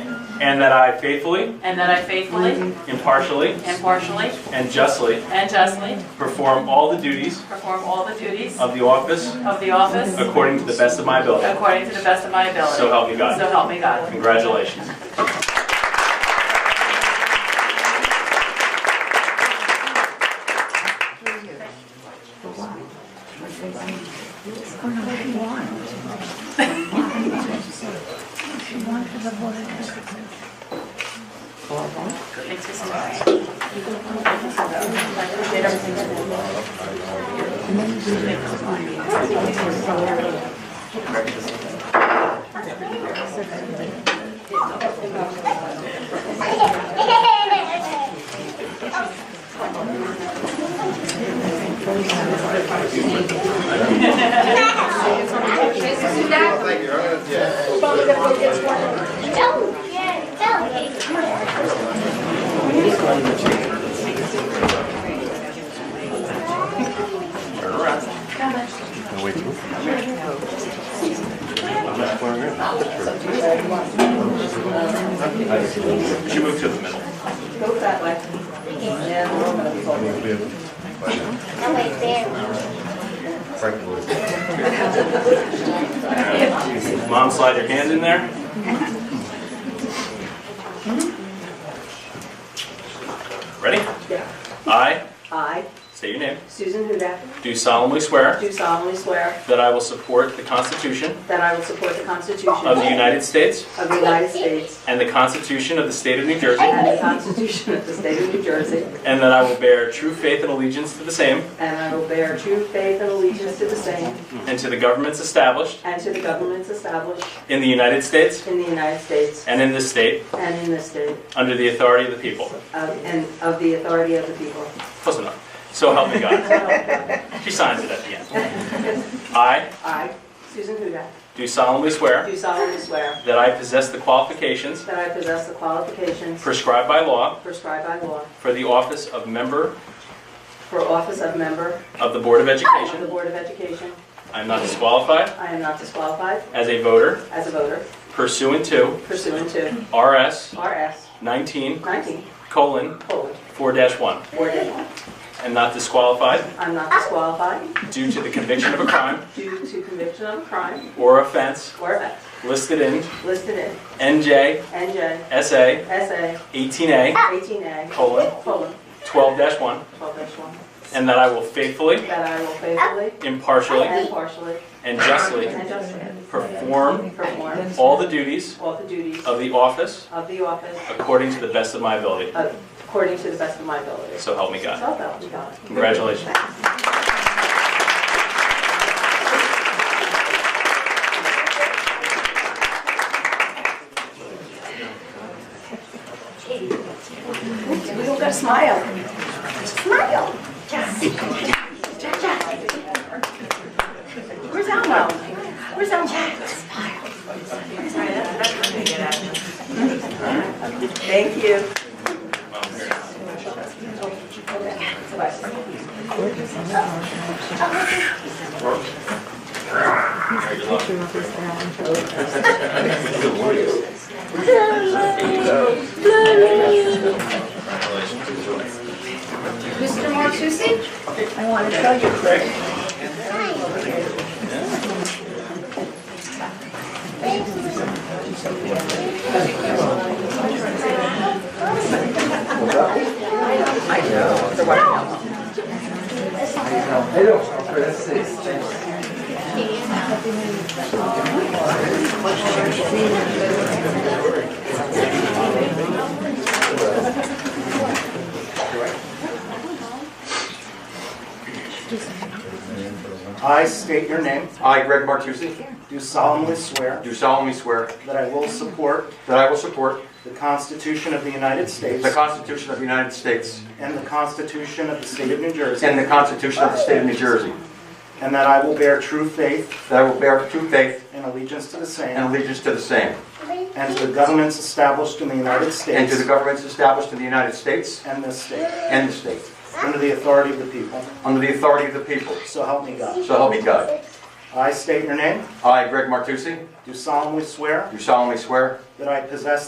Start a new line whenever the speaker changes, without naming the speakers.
and that I faithfully,
and that I faithfully,
impartially,
impartially,
and justly
and justly
perform all the duties
perform all the duties
of the office
of the office
according to the best of my ability.
according to the best of my ability.
So help me God.
So help me God.
Congratulations.
Thanks for coming. Did everything.
Oh, yeah, tell me.
You move to the middle.
Go that way.
No, wait, there.
Mom, slide your hand in there. Ready?
Yeah.
I,
I,
say your name,
Susan Hudak,
do solemnly swear
do solemnly swear
that I will support the Constitution
that I will support the Constitution
of the United States
of the United States
and the Constitution of the State of New Jersey,
and the Constitution of the State of New Jersey,
and that I will bear true faith and allegiance to the same
and I will bear true faith and allegiance to the same
and to the governments established
and to the governments established
in the United States
in the United States
and in this state
and in this state,
under the authority of the people.
of- and of the authority of the people.
Close enough. So help me God. She signs it at the end. I
I, Susan Hudak,
do solemnly swear
do solemnly swear
that I possess the qualifications
that I possess the qualifications
prescribed by law
prescribed by law
for the office of member
for office of member
of the Board of
of the
Education.
Board of Education.
I am not disqualified
I am not disqualified
as a voter
as a voter
pursuant to
pursuant to
RS
RS
19
19,
colon
colon,
4-1
or did.
and not disqualified
I'm not disqualified
due to the conviction of a crime
due to conviction of a crime
or offense
or offense
listed in
listed in
NJ
NJ
SA
SA
18A
18A,
colon
colon,
12-1
12-1,
and that I will faithfully,
that I will faithfully
impartially,
and partially
and justly
and justly
perform
perform
all the duties
all the duties
of the office
of the office
according to the best of my ability.
according to the best of my ability.
So help me God.
So help me God.
Congratulations.
You don't got to smile. Smile. Where's Elmo? Where's Elmo? Thank you.
Mr. Martucci?
I want to tell you, Craig,
Hello, let's see. Thanks.
I state your name,
I, Greg Martucci,
do solemnly swear
do solemnly swear
that I will support
that I will support
the Constitution of the United States
the Constitution of the United States
and the Constitution of the State of New
and
Jersey,
the Constitution of the State of New Jersey,
and that I will bear true faith
that I will bear true faith
and allegiance to the
and
same
allegiance to the same,
and to the governments established in the United
and
States
to the governments established in the United States
and this state,
and the state,
under the authority of the people,
under the authority of the people,
so help me God.
so help me God.
I state your name,
I, Greg Martucci,
do solemnly swear
do solemnly swear
that I possess